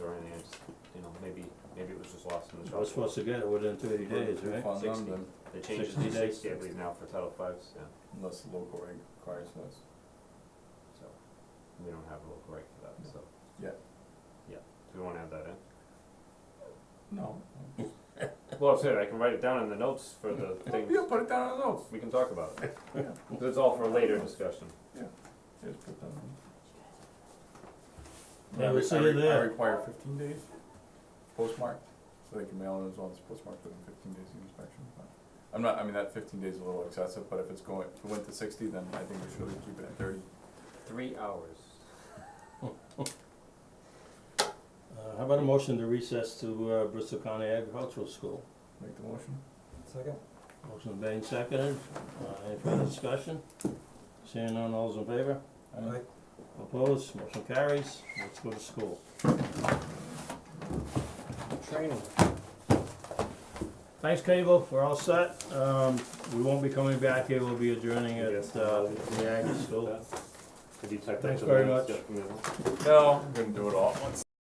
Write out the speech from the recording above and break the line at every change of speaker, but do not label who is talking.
It
I was supposed to get it within thirty days, right?
Refund them,
60.
then,
They changed it
60
to
days.
sixty, I believe now for Title Five, yeah,
unless the local reg requires us.
so, we don't have a local right for that, so.
Yeah.
Yeah, do we wanna add that in?
No.
Well, I said, I can write it down in the notes for the things,
Yeah, put it down on the notes,
we can talk about it,
yeah,
But it's all for later discussion.
just put that on.
Yeah,
I
we'll
re-
see
I
you
re- I
there.
require fifteen days postmarked, so they can mail it as well as postmarked within fifteen days of inspection, but. I'm not, I mean, that fifteen days is a little excessive, but if it's going, if it went to sixty, then I think we should keep it at thirty.
Three hours.
Uh, how about a motion to recess to, uh, Bristol County Agricultural School?
Make the motion?
Second?
Motion being seconded, uh, any further discussion? Seeing none, all's in favor?
Aye.
Opposed, motion carries, let's go to school.
Training.
Thanks, Cable, we're all set, um, we won't be coming back here, we'll be adjourning at, uh, the Aggie School.
Could you type
Thanks
that to the
very
minutes,
much.
Jeff, from the-
No, I'm gonna do it all at once.